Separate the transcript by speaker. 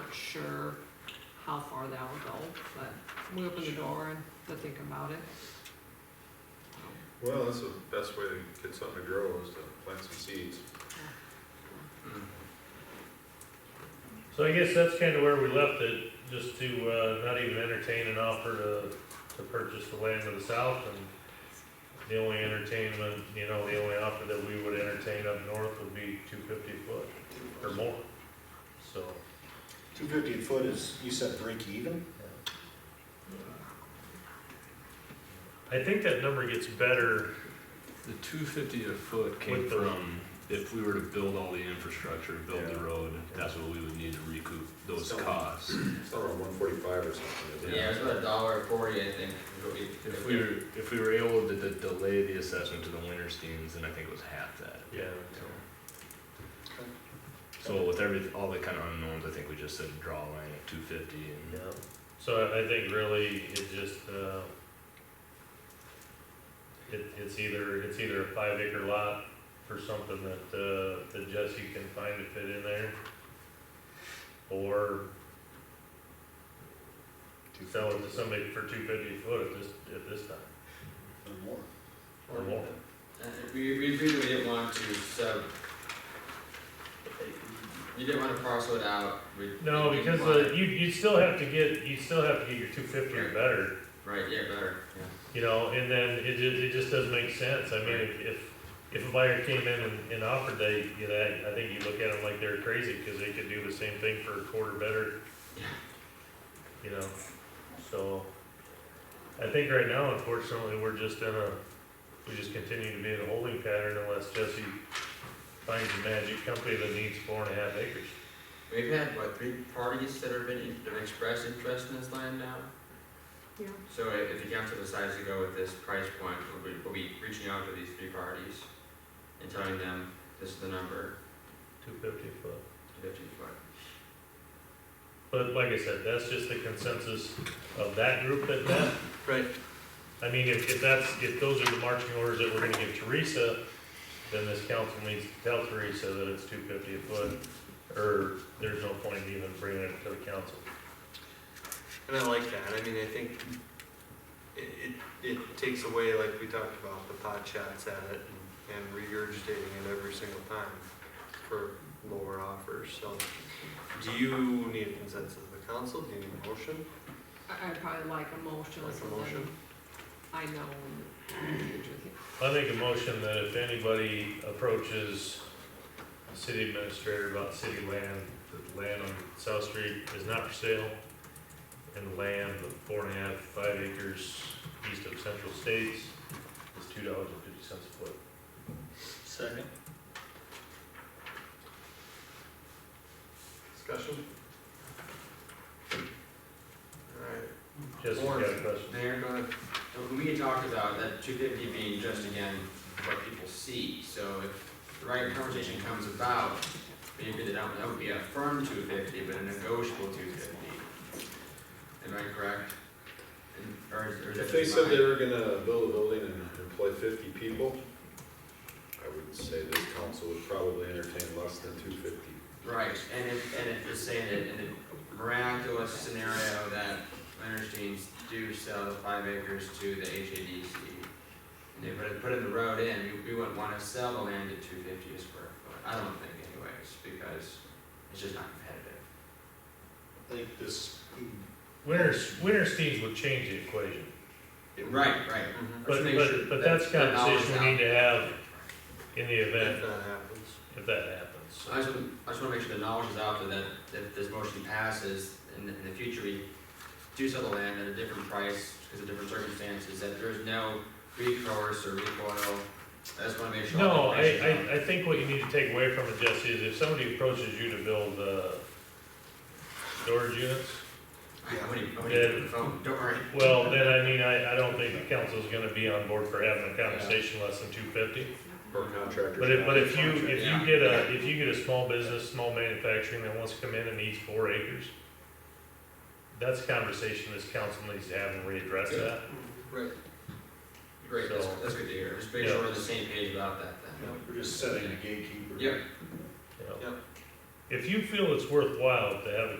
Speaker 1: weren't sure how far that would go, but we opened the door and to think about it.
Speaker 2: Well, that's the best way to get something to grow is to plant some seeds.
Speaker 3: So I guess that's kind of where we left it, just to, uh, not even entertain an offer to, to purchase the land to the south and the only entertainment, you know, the only offer that we would entertain up north would be two fifty foot or more. So,
Speaker 4: Two fifty a foot is, you said break even?
Speaker 3: I think that number gets better,
Speaker 5: The two fifty a foot came
Speaker 3: With the-
Speaker 5: from, if we were to build all the infrastructure, build the
Speaker 2: Yeah.
Speaker 5: road, that's what we would need to recoup those
Speaker 2: Some-
Speaker 5: costs.
Speaker 2: It's around one forty-five or something, isn't it?
Speaker 6: Yeah, it's about a dollar forty, I think. is what we-
Speaker 5: If we were, if we were able to de- delay the assessment to the Wintersteins, then I think it was half that.
Speaker 3: yeah.
Speaker 5: So with every, all the kind of unknowns, I think we just said draw a line at two fifty
Speaker 3: Yeah.
Speaker 5: and
Speaker 3: So I, I think really it just, uh, it, it's either, it's either a five acre lot for something that, uh, that Jesse can find to fit in there. Or sell it to somebody for two fifty a foot at this, at this time,
Speaker 4: Or more.
Speaker 3: or more.
Speaker 6: Uh, We, we agreed that we didn't want to, so. You didn't wanna parcel it out, we.
Speaker 3: No,
Speaker 6: we
Speaker 3: because
Speaker 6: didn't want
Speaker 3: the, you, you still have to get, you still have to get your two fifty or better,
Speaker 6: it- Right, yeah, better, yeah.
Speaker 3: you know, and then it just, it just doesn't make sense, I mean, if, if, if a buyer came in and, and offered that, you know, I think you look at them like they're crazy, cause they could do the same thing for a quarter better. You know, so, I think right now, unfortunately, we're just in a, we just continue to be in a holding pattern unless Jesse finds a magic company that needs four and a half acres.
Speaker 6: We've had, what, three parties that have been, that have expressed interest in this land now?
Speaker 1: Yeah.
Speaker 6: So i- if the council decides to go with this price point, we'll be, we'll be reaching out to these three parties and telling them, this is the number,
Speaker 3: Two fifty a foot.
Speaker 6: fifteen foot.
Speaker 3: But like I said, that's just the consensus of that group that met.
Speaker 5: Right.
Speaker 3: I mean, if, if that's, if those are the marching orders that we're gonna give Teresa, then this council needs to tell Teresa that it's two fifty a foot, or there's no point in even bringing it to the council.
Speaker 7: And I like that. I mean, I think it, it, it takes away, like we talked about, the pot shots at it and- and regurgitating it every single time for lower offers. So do you need a consensus of the council? Do you need a motion?
Speaker 1: I, I'd probably like a motion,
Speaker 7: Like a
Speaker 1: so then
Speaker 7: motion?
Speaker 1: I know.
Speaker 3: I make a motion that if anybody approaches the city administrator about city land, that the land on South Street is not for sale, and the land of four and a half, five acres east of Central States is two dollars and fifty cents a foot.
Speaker 4: Second.
Speaker 7: Discussion? All right.
Speaker 3: Jesse, you got a question?
Speaker 6: Mayor, go ahead. Uh, We had talked about that two fifty being just again what people see, so if the right conversation comes about, maybe that that would be a firm two fifty, but a negotiable two fifty. Am I correct? And- Or is, or is that
Speaker 2: If they
Speaker 6: just
Speaker 2: said
Speaker 6: mine?
Speaker 2: they were gonna build a building and employ fifty people, I would say this council would probably entertain less than two fifty.
Speaker 6: Right, and if, and if you're saying that in the miraculous scenario that Leonardstein's do sell the five acres to the HADC, and they put, it- put in the road in, we, we wouldn't wanna sell the land at two fifty a square foot, I don't think anyways, because it's just not competitive.
Speaker 4: I think this,
Speaker 3: Winter, winter steeds would change the equation,
Speaker 6: Right, right.
Speaker 7: Mhm.
Speaker 3: but,
Speaker 6: Let's make sure
Speaker 3: but, but that's a
Speaker 6: that- that knowledge
Speaker 3: conversation we need to have in the
Speaker 7: If
Speaker 3: event
Speaker 7: that happens.
Speaker 3: if that happens.
Speaker 6: So I just, wanna- I just wanna make sure the knowledge is out there that if this motion passes, in the, in the future, we do sell the land at a different price, because of different circumstances, that there's no recourse or recoil. I just wanna make sure.
Speaker 3: No,
Speaker 6: all the
Speaker 3: I,
Speaker 6: information's
Speaker 3: I, I think what you need to take away from it, Jesse, is if somebody approaches you to build, uh, storage units,
Speaker 6: out. I wouldn't, I
Speaker 3: Yeah.
Speaker 6: wouldn't even phone, don't worry.
Speaker 3: well, then, I mean, I, I don't think the council's gonna be on board for having a conversation less than two fifty.
Speaker 2: Or contractors.
Speaker 3: But if, but if you,
Speaker 2: contract-
Speaker 3: if
Speaker 6: Yeah.
Speaker 3: you get a, if you get a small business, small manufacturing that wants to come in and needs four acres, that's a conversation this council needs to have and readdress that.
Speaker 6: Right. Great, that's,
Speaker 3: So-
Speaker 6: that's good to hear, just make sure we're on the same page about that then.
Speaker 4: we're just setting a gatekeeper.
Speaker 6: Yep.
Speaker 3: you know.
Speaker 7: Yep.
Speaker 3: If you feel it's worthwhile to have a